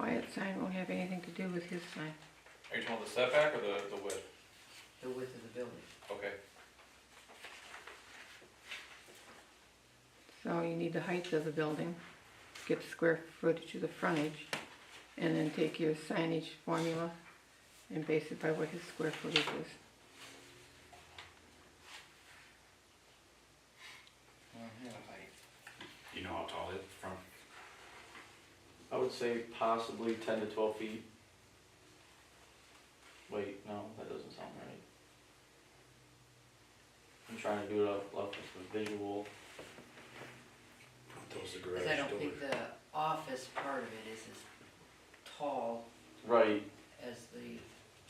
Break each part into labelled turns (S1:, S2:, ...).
S1: that sign won't have anything to do with his sign.
S2: Are you talking about the setback or the, the width?
S3: the width of the building.
S2: Okay,
S1: So you need the height of the building, get the square footage of the frontage, and then take your signage formula and base it by what his square footage is.
S4: You know how tall it from?
S5: I would say possibly ten to twelve feet. Wait, no, that doesn't sound right. I'm trying to do it off, off of a visual.
S4: Those are
S3: Cause I don't think the office part of it is as tall
S5: Right,
S3: as the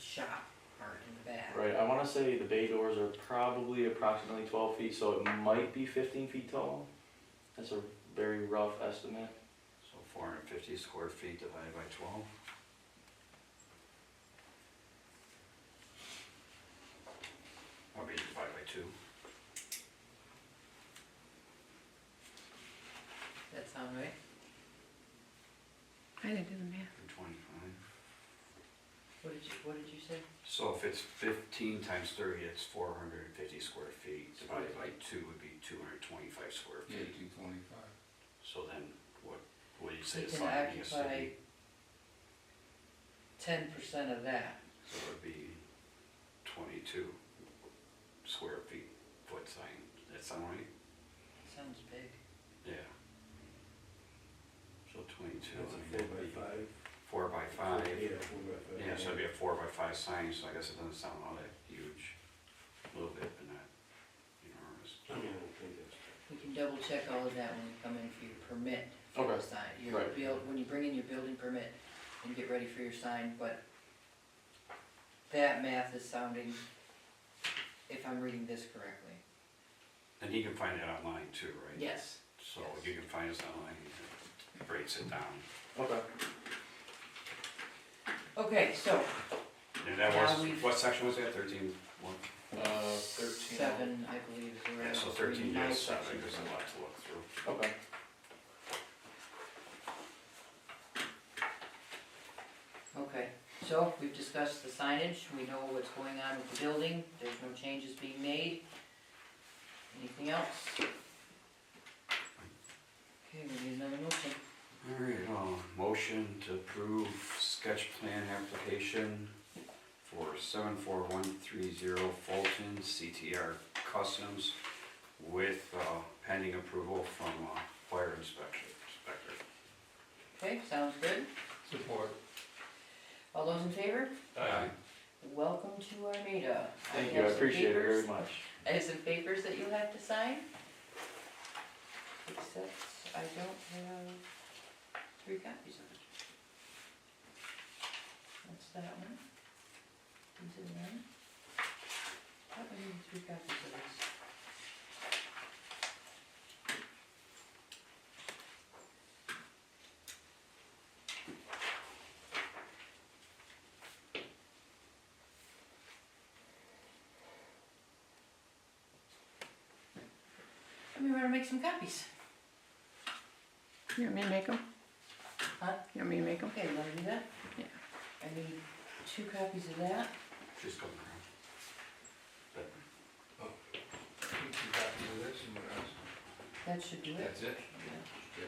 S3: shop part in the back.
S5: right. I wanna say the bay doors are probably approximately twelve feet, so it might be fifteen feet tall. That's a very rough estimate.
S4: So four hundred and fifty square feet divided by twelve? Or maybe divided by two?
S3: That sound right?
S1: I didn't do the math.
S4: or Twenty-five.
S3: What did you, what did you say?
S4: So if it's fifteen times thirty, it's four hundred and fifty square feet, divided by two would be two hundred and twenty-five square feet.
S6: Eighteen twenty-five.
S4: So then, what, what do you say
S3: He
S4: the
S3: can
S4: sign needs to
S3: occupy
S4: be?
S3: ten percent of that.
S4: So it would be twenty-two square feet, foot sign, that sound right?
S3: Sounds big.
S4: Yeah. So twenty-two.
S6: That's a
S4: and
S6: four
S4: that'd
S6: by
S4: be
S6: five.
S4: Four by five,
S6: Yeah, four by five.
S4: yeah, so it'd be a four by five sign, so I guess it doesn't sound all that huge, a little bit, but not enormous.
S6: I mean, I don't think that's.
S3: We can double check all of that when we come in for your permit for the
S5: Okay,
S3: sign. Your
S5: right.
S3: build, when you bring in your building permit and get ready for your sign, but that math is sounding, if I'm reading this correctly.
S4: And he can find it online too, right?
S3: Yes.
S4: So you can find us online, he breaks it down,
S5: Okay.
S3: Okay, so
S4: and that
S3: Now we've-
S4: was, what section was that, thirteen, one?
S5: Uh, thirteen.
S3: seven, I believe, is the right.
S4: Yeah, so thirteen, yeah, seven, there's a lot to look through.
S5: Okay.
S3: Okay, so we've discussed the signage, we know what's going on with the building, there's no changes being made. Anything else? Okay, we need another motion.
S4: All right, uh, motion to approve sketch plan application for seven four one three zero Fulton CTR Customs with, uh, pending approval from, uh, fire inspection, inspector.
S3: Okay, sounds good.
S6: Support.
S3: All those in favor?
S2: Aye.
S3: Welcome to Armada.
S5: Thank you, I
S3: have some
S5: appreciate it
S3: papers-
S5: very much.
S3: I have some papers that you have to sign. Except I don't have three copies of it. That's that one. Into the one. Oh, I need three copies of this. Let me run and make some copies.
S1: You want me to make them?
S3: Huh?
S1: You want me to make them?
S3: Okay, you wanna do that?
S1: Yeah.
S3: I need two copies of that.
S4: She's coming around.
S6: Oh, You can copy of this and what else?
S3: That should do it.
S6: That's it?
S3: Yeah.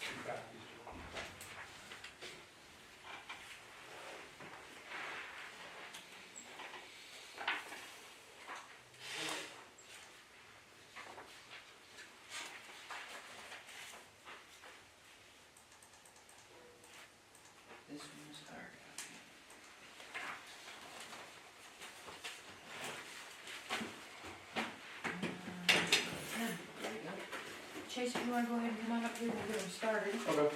S6: Two copies.
S3: This one's hard copy. Uh, there we go. Chase, if you wanna go ahead and come on up here, we'll get them started.
S5: Okay.
S3: Well,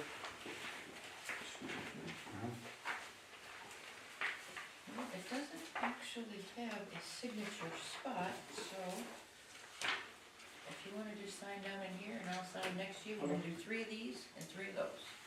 S3: It doesn't actually have a signature spot, so if you wanna just sign down in here and I'll sign next to you, we'll do three of these and three of those.